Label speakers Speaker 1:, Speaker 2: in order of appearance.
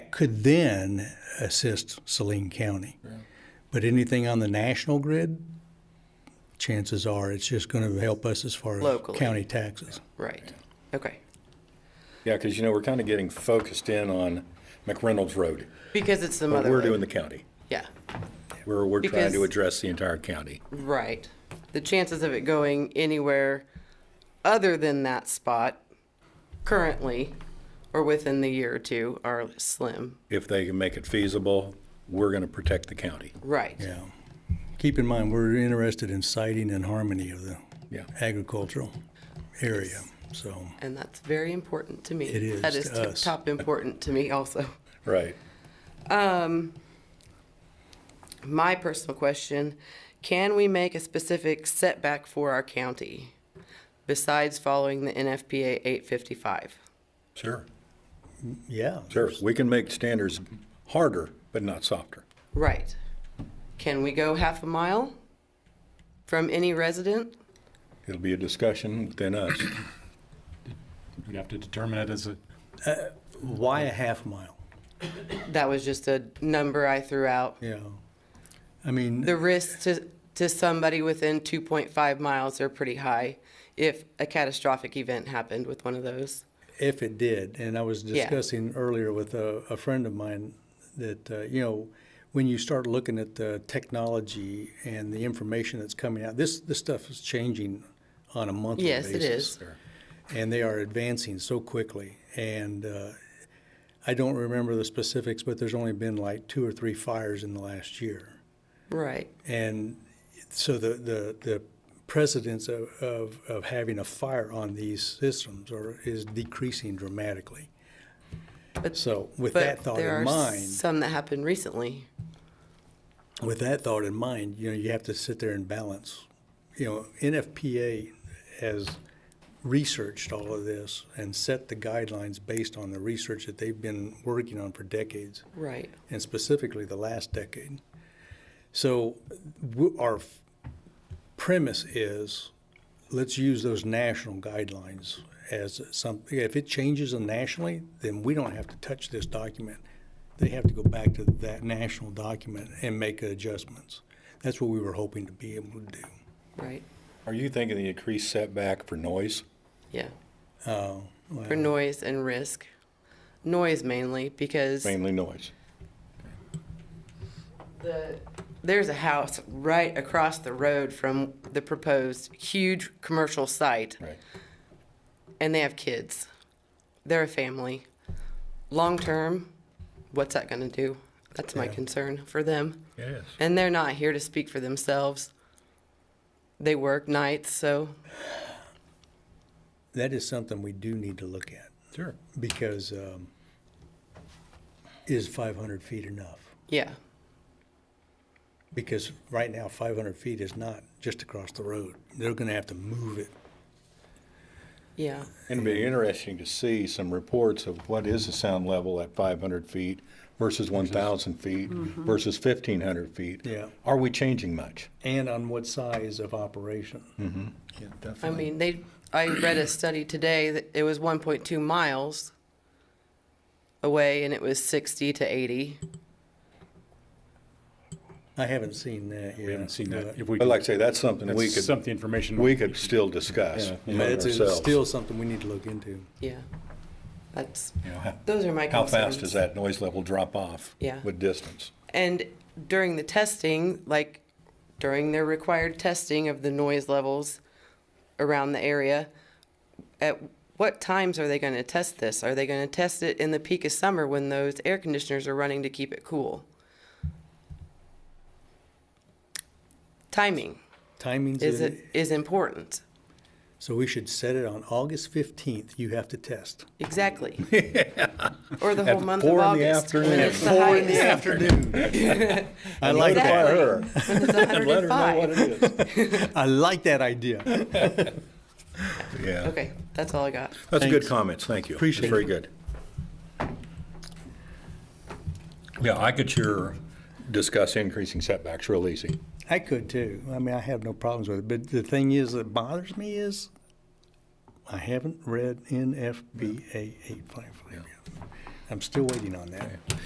Speaker 1: that could then assist Saline County. But anything on the national grid, chances are it's just going to help us as far as
Speaker 2: Locally.
Speaker 1: county taxes.
Speaker 2: Right. Okay.
Speaker 3: Yeah, because you know, we're kind of getting focused in on McReynolds Road.
Speaker 2: Because it's the
Speaker 3: But
Speaker 2: mother.
Speaker 3: we're doing the county.
Speaker 2: Yeah.
Speaker 3: We're, we're trying to
Speaker 2: Because-
Speaker 3: address the entire county.
Speaker 2: Right. The chances of it going anywhere other than that spot currently or within the year or two are slim.
Speaker 3: If they can make it feasible, we're going to protect the county.
Speaker 2: Right.
Speaker 1: Yeah. Keep in mind, we're interested in siting and harmony of the
Speaker 3: Yeah.
Speaker 1: agricultural area. So,
Speaker 2: And that's very important to me.
Speaker 1: It is
Speaker 2: That is
Speaker 1: to
Speaker 2: tip
Speaker 1: us.
Speaker 2: top important to me also.
Speaker 3: Right.
Speaker 2: My personal question, can we make a specific setback for our county besides following the NFPA 855?
Speaker 3: Sure.
Speaker 1: yeah.
Speaker 3: Sure. We can make standards harder, but not softer.
Speaker 2: Right. Can we go half a mile from any resident?
Speaker 3: It'll be a discussion within us.
Speaker 4: You'd have to determine it as a,
Speaker 1: Why a half mile?
Speaker 2: That was just a number I threw out.
Speaker 1: Yeah. I mean,
Speaker 2: The risks to, to somebody within 2.5 miles are pretty high if a catastrophic event happened with one of those.
Speaker 1: If it did, and I was
Speaker 2: Yeah.
Speaker 1: discussing earlier with a, a friend of mine that, uh, you know, when you start looking at the technology and the information that's coming out, this, this stuff is changing on a monthly
Speaker 2: Yes,
Speaker 1: basis.
Speaker 2: it is.
Speaker 1: And they are advancing so quickly. And uh, I don't remember the specifics, but there's only been like two or three fires in the last year.
Speaker 2: Right.
Speaker 1: And so the, the, the precedence of, of, of having a fire on these systems are, is decreasing dramatically.
Speaker 2: But-
Speaker 1: So with
Speaker 2: But
Speaker 1: that thought
Speaker 2: there
Speaker 1: in
Speaker 2: are
Speaker 1: mind,
Speaker 2: some that happened recently.
Speaker 1: with that thought in mind, you know, you have to sit there and balance. You know, NFPA has researched all of this and set the guidelines based on the research that they've been working on for decades.
Speaker 2: Right.
Speaker 1: and specifically the last decade. So w- our f- premise is let's use those national guidelines as something. If it changes nationally, then we don't have to touch this document. They have to go back to that national document and make adjustments. That's what we were hoping to be able to do.
Speaker 2: Right.
Speaker 3: Are you thinking the increased setback for noise?
Speaker 2: Yeah.
Speaker 1: Oh,
Speaker 2: For
Speaker 1: well,
Speaker 2: noise and risk. Noise mainly because
Speaker 3: Mainly noise.
Speaker 2: the, there's a house right across the road from the proposed huge commercial site.
Speaker 3: Right.
Speaker 2: and they have kids. They're a family. Long term, what's that going to do? That's my concern for them.
Speaker 3: Yes.
Speaker 2: And they're not here to speak for themselves. They work nights, so
Speaker 1: that is something we do need to look at
Speaker 3: Sure.
Speaker 1: because um, is 500 feet enough?
Speaker 2: yeah,
Speaker 1: Because right now, 500 feet is not just across the road. They're going to have to move it.
Speaker 2: yeah,
Speaker 3: It'd be interesting to see some reports of what is the sound level at 500 feet versus 1,000 feet versus 1,500 feet.
Speaker 1: Yeah.
Speaker 3: Are we changing much?
Speaker 1: And on what size of operation?
Speaker 3: Yeah,
Speaker 2: I
Speaker 3: definitely.
Speaker 2: mean, they. I read a study today that it was 1.2 miles away, and it was 60 to 80.
Speaker 1: I haven't seen that yet.
Speaker 4: we haven't seen that. If
Speaker 1: but-
Speaker 4: we
Speaker 3: But
Speaker 4: could-
Speaker 3: like I say, that's something we
Speaker 4: That's
Speaker 3: could,
Speaker 4: something information.
Speaker 3: we could still discuss.
Speaker 4: Yeah,
Speaker 1: but
Speaker 3: among
Speaker 1: It's it's
Speaker 3: ourselves.
Speaker 1: still something we need to look into.
Speaker 2: Yeah, that's.
Speaker 3: You know, how-
Speaker 2: Those are my
Speaker 3: How
Speaker 2: concerns.
Speaker 3: fast does that noise level drop off?
Speaker 2: Yeah.
Speaker 3: With distance?
Speaker 2: And during the testing, like during their required testing of the noise levels around the area, at what times are they going to test this? Are they going to test it in the peak of summer when those air conditioners are running to keep it cool? Timing
Speaker 1: Timing's,
Speaker 2: is
Speaker 1: in-
Speaker 2: it is important.
Speaker 1: so we should set it on August 15th. You have to test.
Speaker 2: Exactly. Or the whole
Speaker 3: At
Speaker 2: month of
Speaker 3: four in the
Speaker 2: August. when
Speaker 3: afternoon.
Speaker 2: it's the
Speaker 1: Four in
Speaker 2: highest.
Speaker 1: the afternoon. I like
Speaker 2: Exactly.
Speaker 1: that.
Speaker 3: her.
Speaker 2: When it's
Speaker 3: Let her
Speaker 2: 105.
Speaker 3: know what it is.
Speaker 1: I like that idea.
Speaker 3: Yeah.
Speaker 2: Okay, that's all I got.
Speaker 3: That's
Speaker 1: Thanks.
Speaker 3: good comments, thank you.
Speaker 1: Appreciate
Speaker 3: That's Very good. Yeah, I could sure discuss increasing setbacks real easy.
Speaker 1: I could too. I mean, I have no problems with it. But the thing is that bothers me is I haven't read NFPA 855 yet. I'm still waiting on that.